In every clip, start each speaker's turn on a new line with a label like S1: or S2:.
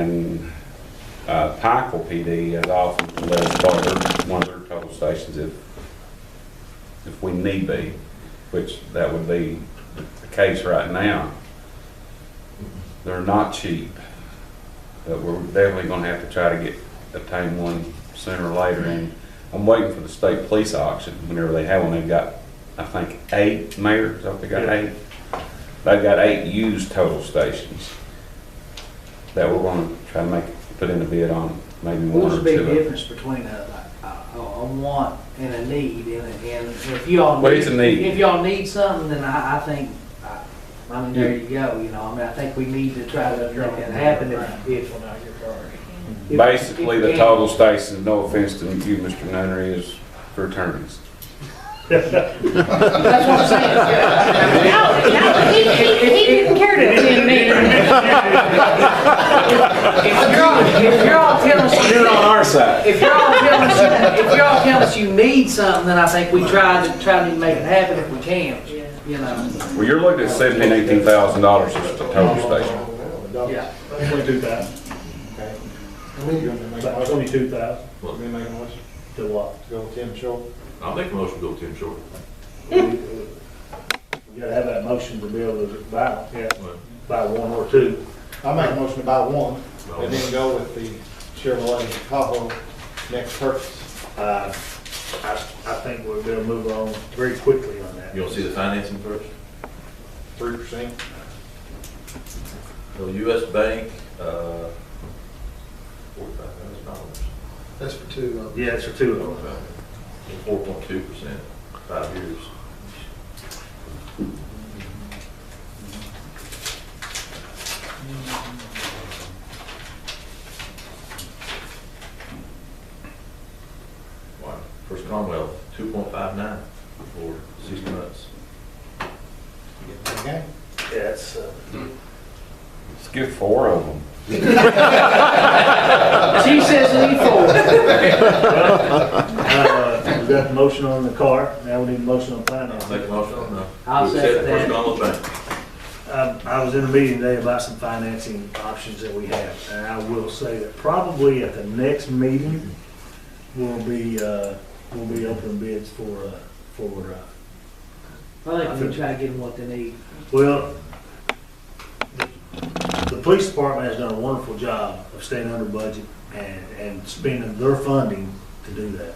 S1: And uh, Pikeville PD has offered to let us borrow their- one of their total stations if, if we need be, which that would be the case right now. They're not cheap, but we're definitely gonna have to try to get, obtain one sooner or later. And I'm waiting for the state police auction, whenever they have one, they've got, I think, eight mayors, I think they got eight. They've got eight used total stations that we're gonna try to make, put in a bid on, maybe one
S2: What's
S1: or
S2: the big
S1: two.
S2: difference between a, a, a a want and a need, and, and if y'all.
S1: Well, it's a need.
S2: If y'all need something, then I, I think, I, I mean, there you go, you know, I mean, I think we need to try to make that happen if, if. if-
S1: Basically, the
S2: if-
S1: total station, no offense to you, Mr. Nunnery, is for attorneys.
S2: That's what I'm saying, yeah.
S3: No, no, he, he, he didn't care to attend me.
S2: If you're all, if you're all telling us,
S1: You're on our side.
S2: if you're all telling us, if you're all telling us you need something, then I think we try to, try to make it happen if we can, you know,
S1: Well, you're looking at seventeen, eighteen thousand dollars just a total station.
S2: yeah.
S4: Twenty-two thousand, about twenty-two thousand to what?
S5: I'll make a motion to go with Tim Short.
S4: You uh, gotta have that motion to be able to buy, yeah,
S5: Right.
S4: buy one or two.
S6: I make a motion to buy one and
S5: Well,
S6: then go with the Chevrolet Tahoe next purchase.
S4: Uh, I, I think we're gonna move on very quickly on that.
S5: You want to see the financing first?
S6: Three percent,
S5: So US Bank, uh, forty-five thousand dollars.
S7: That's for two uh, of them.
S4: Yeah, it's for two of them.
S5: Four point two percent, five years. Wow, First Commonwealth, two point five nine for six months.
S6: okay?
S4: Yeah, it's, uh,
S1: Let's get four of them.
S2: She says need four.
S4: uh, we got the motion on the car, now we need a motion on
S5: I'll make a
S4: finance.
S5: motion on that.
S2: I'll
S5: We accept
S2: second
S5: First
S2: that.
S5: Commonwealth Bank.
S4: Um, I was in a meeting today about some financing options that we have, and I will say that probably at the next meeting, we'll be, uh, we'll be opening bids for, uh, for, uh,
S2: I think we try to get them what they need.
S4: Well, the- the police department has done a wonderful job of staying under budget and, and spending their funding to do that.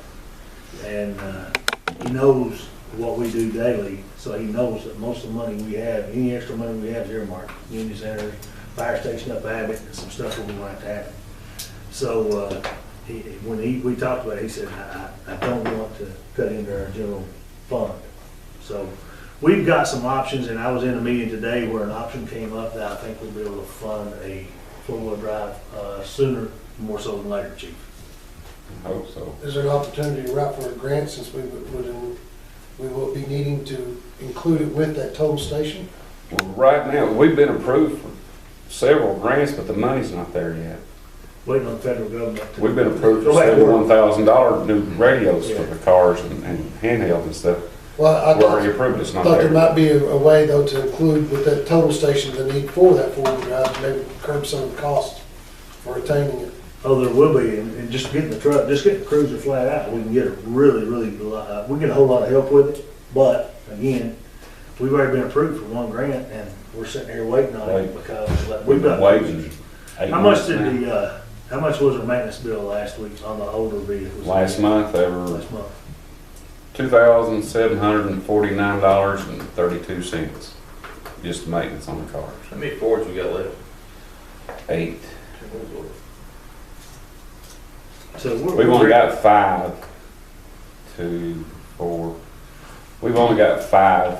S4: And, uh, he knows what we do daily, so he knows that most of the money we have, any extra money we have is earmarked. Union Center, fire station up Abbott, and some stuff that we want to happen. So, uh, he, when he, we talked about it, he said, I, I I don't want to cut into our general fund. So, We've got some options, and I was in a meeting today where an option came up that I think we'll be able to fund a four-wheel drive uh, sooner, more so than later, chief.
S1: Hope so.
S7: Is there an opportunity to write for a grant since we would, would- we will be needing to include it with that toll station?
S1: Well, right now, we've been approved for several grants, but the money's not there yet.
S4: Waiting on the federal government. to-
S1: We've been approved for
S4: Go back to work.
S1: seventy-one thousand dollar new radios for the cars and and handheld and stuff.
S7: Well, I
S1: We're already
S7: thought,
S1: approved, it's not
S7: thought there
S1: there.
S7: might be a, a way though to include with that total station the need for that four-wheel drive, maybe curb some of the cost for attaining it.
S4: Oh, there will be, and and just getting the truck, just getting the cruiser flat out, we can get a really, really, lo- uh, we get a whole lot of help with it. But again, we've already been approved for one grant, and we're sitting here waiting on it
S1: Wait.
S4: because like,
S1: We've
S4: we've
S1: been
S4: got.
S1: waiting eight
S4: How much
S1: months
S4: did
S1: now.
S4: the, uh, how much was our maintenance bill last week on the uh, older vehicles?
S1: Last month, they were
S4: Last month.
S1: two thousand seven hundred and forty-nine dollars and thirty-two cents, just maintenance on the cars.
S5: How many Fords we got left?
S1: Eight.
S4: So we're.
S1: We've only got five, two, four. We've only got five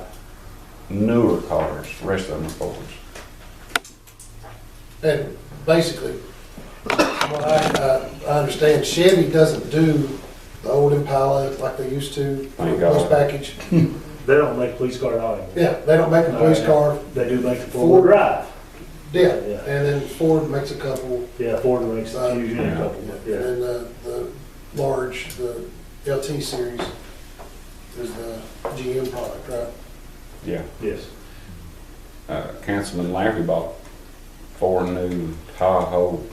S1: newer cars, rest of them are Fords.
S7: And basically, from what I, uh, I understand Chevy doesn't do the old Impala like they used to,
S1: Thank
S7: those
S1: God.
S7: package.
S4: They don't make police car at all anymore.
S7: Yeah, they don't make a police car,
S4: They do make the
S7: Ford.
S4: Ford drive.
S7: yeah,
S4: Yeah.
S7: and then Ford makes a couple,
S4: Yeah, Ford makes
S7: Uh,
S4: usually a couple,
S7: and
S4: yeah.
S7: then the, the large, the LT series is the GM product, right?
S1: Yeah.
S4: Yes.
S1: Uh, Councilman Lampy bought four new Tahoe